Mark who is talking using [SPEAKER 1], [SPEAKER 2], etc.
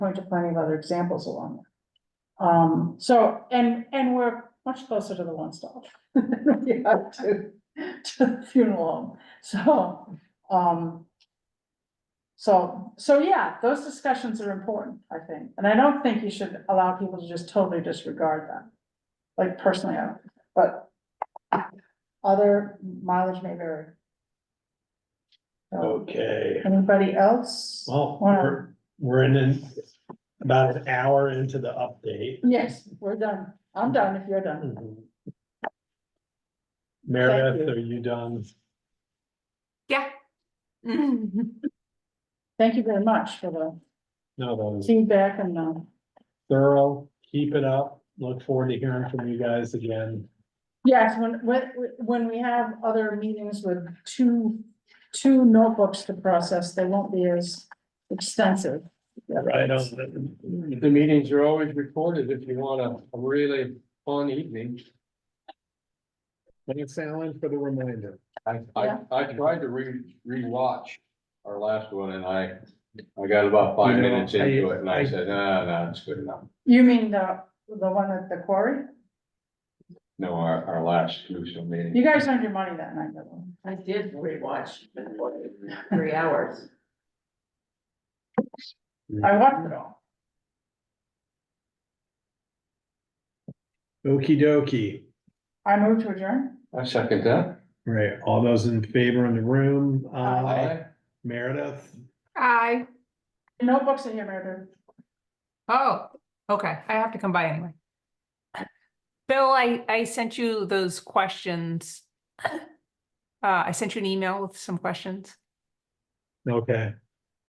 [SPEAKER 1] point to plenty of other examples along there. Um, so, and, and we're much closer to the one stop than we are to, to the funeral home, so, um. So, so yeah, those discussions are important, I think, and I don't think you should allow people to just totally disregard them. Like personally, I don't, but other mileage may vary. So,
[SPEAKER 2] Okay,
[SPEAKER 1] anybody else?
[SPEAKER 2] well,
[SPEAKER 1] Wanna-
[SPEAKER 2] we're, we're in an- about an hour into the update.
[SPEAKER 1] Yes, we're done. I'm done if you're done.
[SPEAKER 2] Meredith,
[SPEAKER 1] you.
[SPEAKER 2] are you done?
[SPEAKER 1] Thank you very much for the
[SPEAKER 2] No, that was
[SPEAKER 1] feedback and, um,
[SPEAKER 2] thorough. Keep it up. Look forward to hearing from you guys again.
[SPEAKER 1] yes, when, when, when we have other meetings with two, two notebooks to process, they won't be as extensive.
[SPEAKER 2] Right on.
[SPEAKER 3] The meetings are always recorded if you want a a really fun evening.
[SPEAKER 2] Thanks, Alan, for the reminder.
[SPEAKER 3] I, I,
[SPEAKER 1] Yeah.
[SPEAKER 3] I tried to re, rewatch our last one and I, I got about five
[SPEAKER 2] You know,
[SPEAKER 3] minutes into it and I said, no, no, it's good enough.
[SPEAKER 1] You mean the, the one at the quarry?
[SPEAKER 3] No, our, our last crucial meeting.
[SPEAKER 1] You guys earned your money that night, though.
[SPEAKER 4] I did rewatch it for three hours.
[SPEAKER 1] I watched it all.
[SPEAKER 2] Okey dokey.
[SPEAKER 1] I moved to adjourn.
[SPEAKER 3] I second that.
[SPEAKER 2] Right, all those in favor in the room, uh,
[SPEAKER 3] Aye.
[SPEAKER 2] Meredith,
[SPEAKER 5] Aye.
[SPEAKER 1] Notebooks in here, Meredith.
[SPEAKER 5] Oh, okay. I have to come by anyway. Bill, I, I sent you those questions. Uh, I sent you an email with some questions.
[SPEAKER 2] okay,